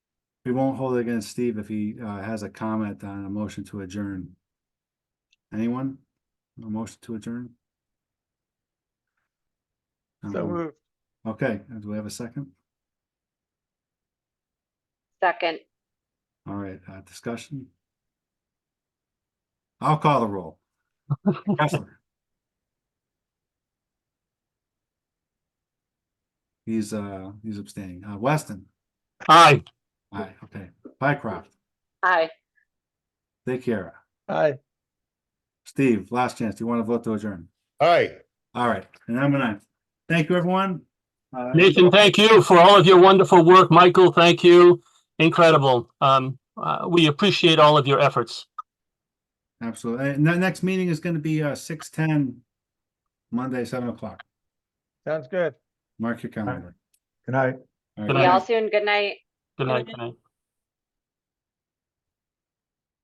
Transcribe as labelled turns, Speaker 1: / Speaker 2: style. Speaker 1: We won't hold it against Steve if he uh has a comment on a motion to adjourn. Anyone? A motion to adjourn?
Speaker 2: So
Speaker 1: Um,
Speaker 2: moved.
Speaker 1: Okay, do we have a second?
Speaker 3: Second,
Speaker 1: All right, uh, discussion? I'll call the roll. Kessler. He's uh, he's abstaining. Uh, Weston,
Speaker 4: Aye.
Speaker 1: aye, okay. Pycroft,
Speaker 3: aye.
Speaker 1: take care.
Speaker 2: Aye.
Speaker 1: Steve, last chance. Do you want to vote to adjourn?
Speaker 5: Aye.
Speaker 1: All right, and I'm gonna, thank you, everyone. Uh,
Speaker 4: Nathan, thank you for all of your wonderful work. Michael, thank you. Incredible. Um, uh, we appreciate all of your efforts.
Speaker 1: Absolutely. And the next meeting is gonna be uh six ten, Monday, seven o'clock.
Speaker 2: Sounds good.
Speaker 1: Mark your calendar.
Speaker 2: Good night.
Speaker 1: All
Speaker 4: Good
Speaker 3: See
Speaker 1: right.
Speaker 3: y'all soon. Good night.
Speaker 4: Good night. Good night.